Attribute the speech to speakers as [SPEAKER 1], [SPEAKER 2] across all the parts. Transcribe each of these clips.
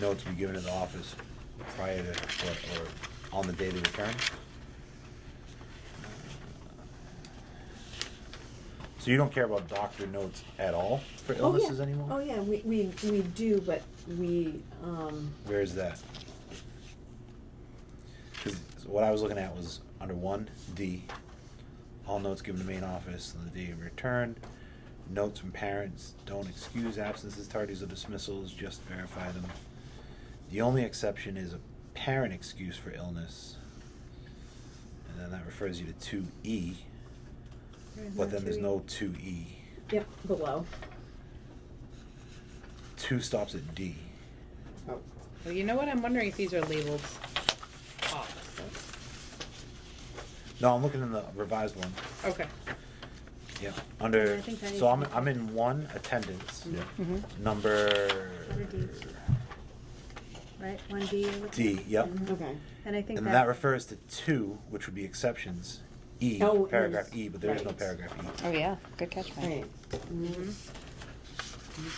[SPEAKER 1] notes be given to the office prior to, or, or on the day they return. So you don't care about doctor notes at all for
[SPEAKER 2] Oh, yeah.
[SPEAKER 1] illnesses anymore?
[SPEAKER 2] Oh, yeah, we, we, we do, but we, um,
[SPEAKER 1] Where is that? Because what I was looking at was under one D, all notes given to main office on the day of return. Notes from parents don't excuse absences, tardies, or dismissals, just verify them. The only exception is a parent excuse for illness. And then that refers you to two E,
[SPEAKER 2] There's
[SPEAKER 1] but then there's no
[SPEAKER 2] two
[SPEAKER 1] two E.
[SPEAKER 2] E. Yep, below.
[SPEAKER 1] Two stops at D.
[SPEAKER 3] Oh.
[SPEAKER 4] Well, you know what? I'm wondering if these are labeled offices.
[SPEAKER 1] No, I'm looking in the revised one.
[SPEAKER 4] Okay.
[SPEAKER 1] Yeah,
[SPEAKER 4] Yeah, I
[SPEAKER 1] under,
[SPEAKER 4] think that is-
[SPEAKER 1] so I'm, I'm in one attendance,
[SPEAKER 5] Yeah.
[SPEAKER 4] Mhm.
[SPEAKER 1] number
[SPEAKER 5] Under D. Right, one D. you're looking
[SPEAKER 1] D,
[SPEAKER 5] at?
[SPEAKER 1] yep.
[SPEAKER 5] Mhm.
[SPEAKER 3] Okay.
[SPEAKER 5] And I think
[SPEAKER 1] And
[SPEAKER 5] that.
[SPEAKER 1] that refers to two, which would be exceptions, E,
[SPEAKER 2] Oh, it
[SPEAKER 1] paragraph
[SPEAKER 2] is.
[SPEAKER 1] E, but there is no
[SPEAKER 2] Right.
[SPEAKER 1] paragraph
[SPEAKER 6] Oh,
[SPEAKER 1] E.
[SPEAKER 6] yeah, good catch,
[SPEAKER 3] Right.
[SPEAKER 6] Mike.
[SPEAKER 4] Mhm.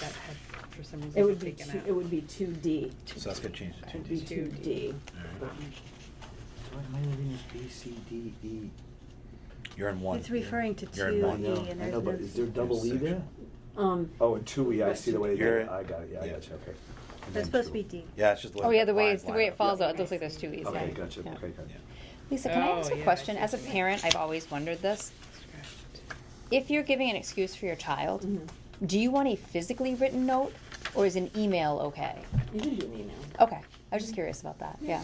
[SPEAKER 4] That had, for some reason,
[SPEAKER 2] It would be
[SPEAKER 4] taken
[SPEAKER 2] two,
[SPEAKER 4] out.
[SPEAKER 2] it would be two D.
[SPEAKER 1] So that's gonna change to
[SPEAKER 2] It
[SPEAKER 1] two
[SPEAKER 2] would be
[SPEAKER 1] D.
[SPEAKER 2] two
[SPEAKER 4] 2D.
[SPEAKER 2] D.
[SPEAKER 1] Alright.
[SPEAKER 3] So am I reading this B, C, D, E?
[SPEAKER 1] You're in one.
[SPEAKER 5] It's referring to
[SPEAKER 1] You're in
[SPEAKER 5] two
[SPEAKER 3] I
[SPEAKER 1] one.
[SPEAKER 5] E
[SPEAKER 3] know,
[SPEAKER 5] and
[SPEAKER 3] I know, but is
[SPEAKER 5] there's
[SPEAKER 3] there
[SPEAKER 5] no.
[SPEAKER 3] double E there?
[SPEAKER 2] Um,
[SPEAKER 3] Oh, and two E, I
[SPEAKER 2] Right,
[SPEAKER 3] see the
[SPEAKER 2] two
[SPEAKER 3] way they
[SPEAKER 1] You're-
[SPEAKER 3] did it, I got it, yeah, I
[SPEAKER 1] yeah.
[SPEAKER 3] got you, okay.
[SPEAKER 1] and then
[SPEAKER 5] That's supposed to
[SPEAKER 1] two.
[SPEAKER 5] be D.
[SPEAKER 1] Yeah, it's just the way.
[SPEAKER 6] Oh, yeah, the way,
[SPEAKER 1] lines
[SPEAKER 6] it's- the
[SPEAKER 1] line
[SPEAKER 6] way
[SPEAKER 1] up.
[SPEAKER 6] it falls
[SPEAKER 5] Yeah.
[SPEAKER 6] out, it looks like there's two E's.
[SPEAKER 3] Okay,
[SPEAKER 6] yeah.
[SPEAKER 3] gotcha,
[SPEAKER 6] Yeah.
[SPEAKER 3] okay, gotcha.
[SPEAKER 1] Yeah.
[SPEAKER 6] Lisa, can I
[SPEAKER 4] Oh,
[SPEAKER 6] ask
[SPEAKER 4] yeah,
[SPEAKER 6] a
[SPEAKER 4] I
[SPEAKER 6] question?
[SPEAKER 4] see
[SPEAKER 6] As a
[SPEAKER 4] what you mean.
[SPEAKER 6] parent, I've always wondered this. If you're giving an excuse for your child,
[SPEAKER 2] mhm.
[SPEAKER 6] do you want a physically written note or is an email okay?
[SPEAKER 2] you can do an email.
[SPEAKER 6] Okay, I was just curious about that, yeah.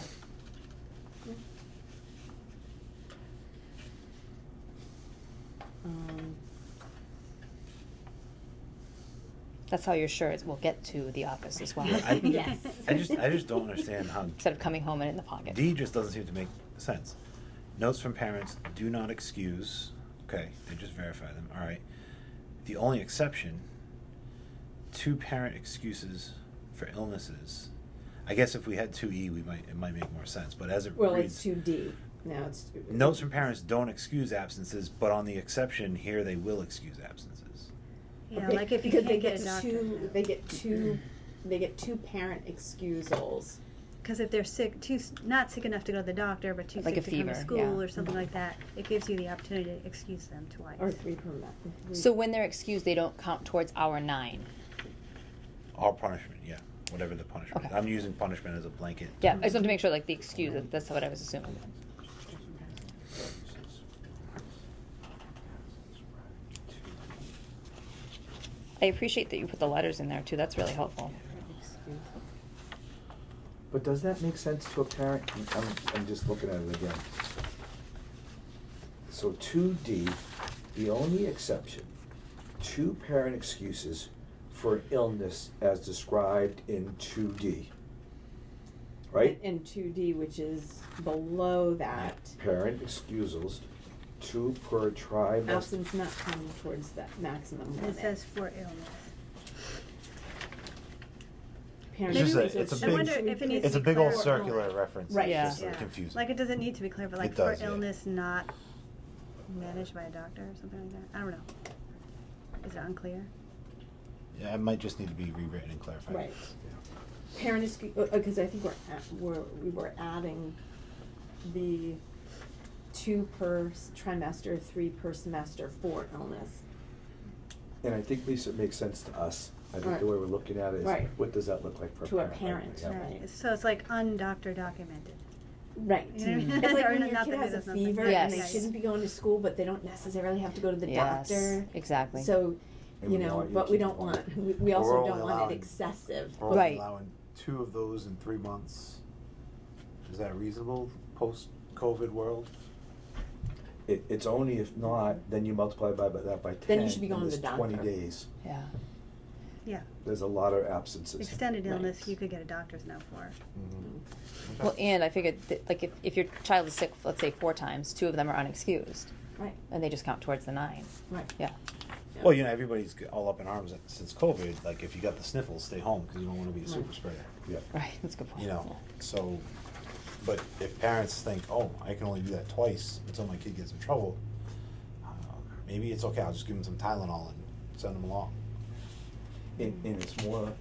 [SPEAKER 2] Um,
[SPEAKER 6] That's how you're sure it will get to the office as well.
[SPEAKER 1] Yeah, I-
[SPEAKER 2] Yes.
[SPEAKER 1] I just, I just don't understand how.
[SPEAKER 6] Instead of coming home and in the pocket.
[SPEAKER 1] D just doesn't seem to make sense. Notes from parents do not excuse. Okay, they just verify them. All right. The only exception two parent excuses for illnesses. I guess if we had 2E, we might it might make more sense, but as it
[SPEAKER 2] Well,
[SPEAKER 1] reads
[SPEAKER 2] it's two D. Now it's.
[SPEAKER 1] Notes from parents don't excuse absences, but on the exception here they will excuse absences.
[SPEAKER 5] Yeah,
[SPEAKER 2] Okay,
[SPEAKER 5] like if you
[SPEAKER 2] because they
[SPEAKER 5] can't get a doctor.
[SPEAKER 2] two, They get two, they get two parent excusals.
[SPEAKER 5] Because if they're sick, too, s- not sick enough to go to the doctor, but too
[SPEAKER 6] Like
[SPEAKER 5] sick to
[SPEAKER 6] a
[SPEAKER 5] come to
[SPEAKER 6] fever,
[SPEAKER 5] school
[SPEAKER 6] yeah.
[SPEAKER 5] or something like that, it gives you the opportunity to excuse them twice.
[SPEAKER 2] Or three per month.
[SPEAKER 6] So when they're excused, they don't count towards hour nine.
[SPEAKER 1] All punishment, yeah. Whatever the punishment.
[SPEAKER 6] Okay.
[SPEAKER 1] I'm using punishment as a blanket. Mm-hmm.
[SPEAKER 6] Yeah, I just wanted to make sure, like the excuse. that- That's what I was assuming. I appreciate that you put the letters in there too. That's really helpful.
[SPEAKER 3] But does that make sense to a parent? I'm- I'm, I'm just looking at it again. So two D, the only exception, two parent excuses for illness as described in two D. Right?
[SPEAKER 2] And two D, which is below that,
[SPEAKER 3] Parent excusals, two per tribe. as-
[SPEAKER 2] absence not counting towards that maximum
[SPEAKER 5] It
[SPEAKER 2] limit.
[SPEAKER 5] says for illness.
[SPEAKER 2] Parent
[SPEAKER 5] It's just a-
[SPEAKER 2] excusals
[SPEAKER 5] it's a
[SPEAKER 2] should
[SPEAKER 5] big- I wonder
[SPEAKER 2] be
[SPEAKER 5] if it needs
[SPEAKER 1] It's a
[SPEAKER 5] to be
[SPEAKER 1] big old
[SPEAKER 5] clear.
[SPEAKER 1] circular reference.
[SPEAKER 2] Right.
[SPEAKER 1] It's just
[SPEAKER 6] Yeah.
[SPEAKER 1] uh, confusing.
[SPEAKER 5] Like it doesn't need to be clear, but like
[SPEAKER 1] It
[SPEAKER 5] for
[SPEAKER 1] does, yeah.
[SPEAKER 5] illness not managed by a doctor or something like that. I don't know. Is it unclear?
[SPEAKER 1] Yeah, it might just need to be rewritten and clarified.
[SPEAKER 2] Right. Parent excu- because I think we're, at- we're, we were adding the two per s- trimester, three per semester for illness.
[SPEAKER 3] And I think, Lisa, it makes sense to us. I think
[SPEAKER 2] Right.
[SPEAKER 3] the way we're looking at it is,
[SPEAKER 2] Right.
[SPEAKER 3] what does that look like for a
[SPEAKER 2] To a
[SPEAKER 3] parent?
[SPEAKER 2] parent,
[SPEAKER 3] Yeah.
[SPEAKER 2] right.
[SPEAKER 5] So it's like undoctor documented.
[SPEAKER 2] Right.
[SPEAKER 5] You know what I mean?
[SPEAKER 2] It's like
[SPEAKER 5] Or
[SPEAKER 2] when your
[SPEAKER 5] not
[SPEAKER 2] kid
[SPEAKER 5] that
[SPEAKER 2] has
[SPEAKER 5] it
[SPEAKER 2] a
[SPEAKER 5] is nothing.
[SPEAKER 2] fever and they
[SPEAKER 6] Yes.
[SPEAKER 2] shouldn't be going to school, but they don't necessarily have to go to the
[SPEAKER 6] yes,
[SPEAKER 2] doctor.
[SPEAKER 6] exactly.
[SPEAKER 2] So,
[SPEAKER 3] And
[SPEAKER 2] you
[SPEAKER 3] we
[SPEAKER 2] know,
[SPEAKER 3] want you
[SPEAKER 2] but we
[SPEAKER 3] to-
[SPEAKER 2] don't want, we, we
[SPEAKER 1] We're
[SPEAKER 2] also
[SPEAKER 1] only
[SPEAKER 2] don't want
[SPEAKER 1] allowing-
[SPEAKER 2] it excessive.
[SPEAKER 1] We're only
[SPEAKER 6] Right.
[SPEAKER 1] allowing two of those in three months. Is that reasonable, post-COVID world?
[SPEAKER 3] It, it's only if not, then you multiply by, by that by ten.
[SPEAKER 2] Then you should be
[SPEAKER 3] and
[SPEAKER 2] going to
[SPEAKER 3] it's
[SPEAKER 2] the
[SPEAKER 3] Twenty
[SPEAKER 2] doctor.
[SPEAKER 3] days,
[SPEAKER 6] yeah,
[SPEAKER 5] Yeah.
[SPEAKER 3] there's a lot of absences.
[SPEAKER 5] Extended
[SPEAKER 2] Right.
[SPEAKER 5] illness, you could get a doctor's note for.
[SPEAKER 6] well, and I figured that, like if, if your child is sick, let's say four times, two of them are unexcused,
[SPEAKER 2] Right,
[SPEAKER 6] and they just count towards the nine.
[SPEAKER 2] right.
[SPEAKER 6] Yeah,
[SPEAKER 1] Well, you know, everybody's g- all up in arms at- since COVID, like, if you got the sniffles, stay home, because you don't wanna be a
[SPEAKER 2] Right.
[SPEAKER 1] super spreader,
[SPEAKER 3] Yeah,
[SPEAKER 6] right. That's a good point.
[SPEAKER 1] you know, so, but if parents think, oh, I can only do that twice until my kid gets in trouble, um, maybe it's okay, I'll just give them some Tylenol and send them along.
[SPEAKER 3] and, and it's more